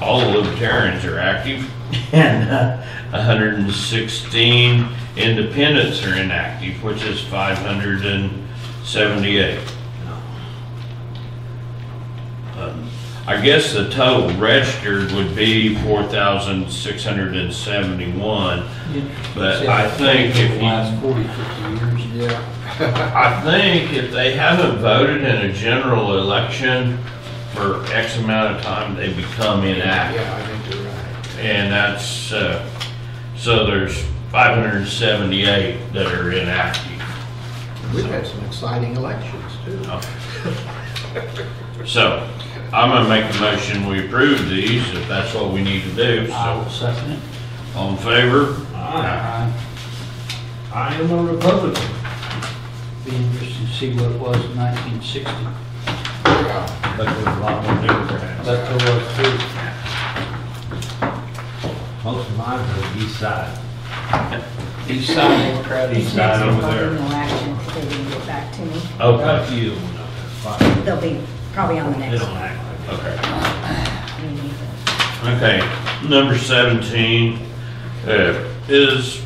all the libertarians are active, and uh, 116 independents are inactive, which is 578. Um, I guess the total registered would be 4,671, but I think if you Last 40, 50 years. Yeah, I think if they haven't voted in a general election for X amount of time, they become inactive. yeah, I think you're right. And that's, uh, so there's 578 that are inactive. We've had some exciting elections too. So I'm gonna make a motion, we approve these, if that's what we need to do. I So, will second it. all in favor? I I am a Republican. Be interesting to see what it was in 1960, Yeah. But there's a lot more Democrats. but there was too. Most of mine are the east side. East Side Democrat, East side over there. Next election, if they didn't get back to me, Got a Okay, few of them up there, but they'll be probably on the They next don't act like okay. meeting. Okay, number 17 uh, is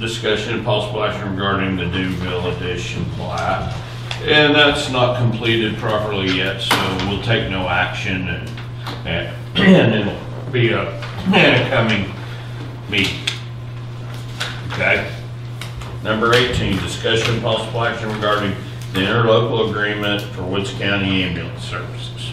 discussion of possible action regarding the Doomville Edition plat. And that's not completed properly yet, so we'll take no action and, and- and it'll be a a coming meeting. Okay? Number 18, discussion of possible action regarding the interlocal agreement for Woods County ambulance services.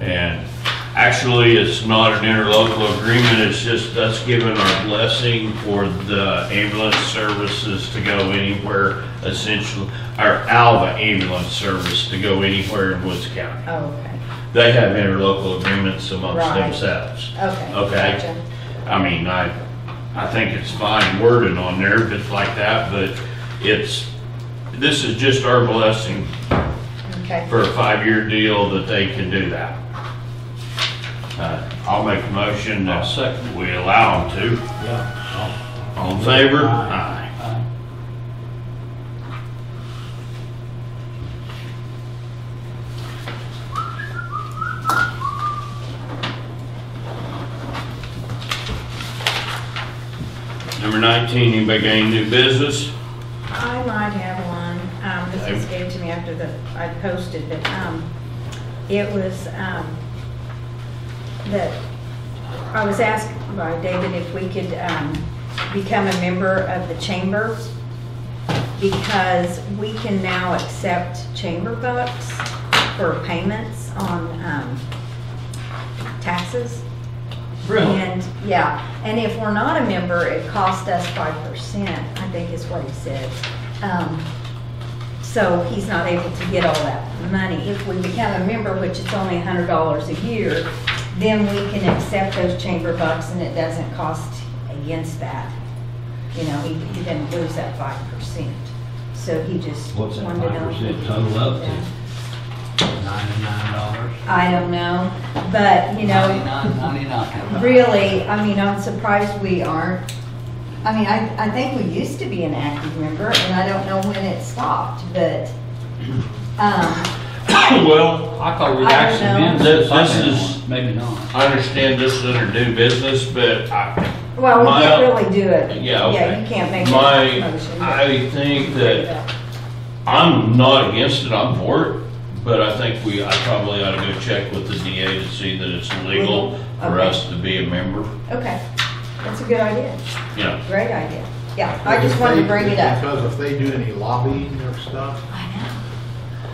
And actually, it's not an interlocal agreement, it's just us giving our blessing for the ambulance services to go anywhere, essentially, our Alva ambulance service to go anywhere in Woods County. Oh, okay, They have interlocal agreements amongst Right. themselves. okay. Okay. gotcha. I mean, I, I think it's fine wording on there, but like that, but it's, this is just our blessing Okay, for a five-year deal that they can do that. Uh, I'll make a motion I'll that second we allow them to. that. Yeah. All in favor? Aye. Aye. Aye. Number 19, anybody got any new business? I might have one, um, this was given to me after the, I posted, but, um, it was, um, that, I was asked by David if we could, um, become a member of the chamber, because we can now accept chamber bucks for payments on, um, taxes. Really? And, yeah, and if we're not a member, it costs us five percent, I think is what he said. Um, So he's not able to get all that money. If we become a member, which it's only a hundred dollars a year, then we can accept those chamber bucks and it doesn't cost against that. You know, he, he doesn't lose that five percent. So he just wanted What's to that know. five if we percent could total do up that. to? Ninety-nine dollars. I don't know, but, you know. 99, 99. Really, I mean, I'm surprised we aren't. I mean, I, I think we used to be an active member, and I don't know when it stopped, but, um, Well, I thought we'd I don't actually know. been. This- since this I've been is- one. Maybe not. I understand this is under new business, but I, well, we My- can't really do it. yeah, okay. Yeah, you can't make a My, motion. but- I think that I'm not against it, I'm for it, but I think we, I probably ought to go check with the DA to see that it's legal for Okay. us to be a member, Okay, that's a good idea, you know. great idea. Yeah, I just wanted to bring it up. Because if they do any lobbying or stuff, I know.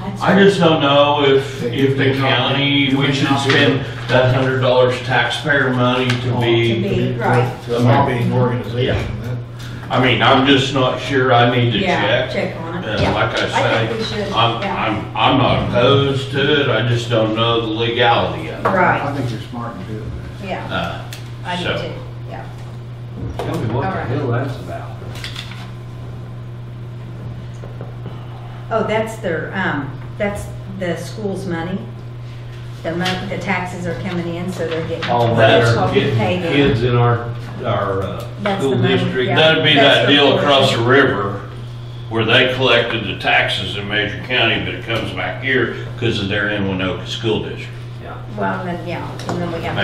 That's I just don't know if, They- if the they not- county, do we they should not do spend that hundred dollars taxpayer money to To be, be, right. to a lobbying organization, that- I mean, I'm just not sure I need to Yeah, check. check on Uh, it, yeah. like I think we should, say, I'm, yeah. I'm, I'm not opposed to it, I just don't know the legality of it. I Right, think you're smart in doing that. yeah, Uh, I do so- too, yeah. Tell me what All the right. hell that's about. Oh, that's their, um, that's the school's money. The mon, the taxes are coming in, so they're getting. All that that's what are we Oh, getting pay them. kids in our, our uh, That's the school money, district. yeah. That'd be That's that the deal portion. across the river where they collected the taxes in Major County, but it comes back here because they're in Winoka School District. Yeah. Well, then, yeah, and then we have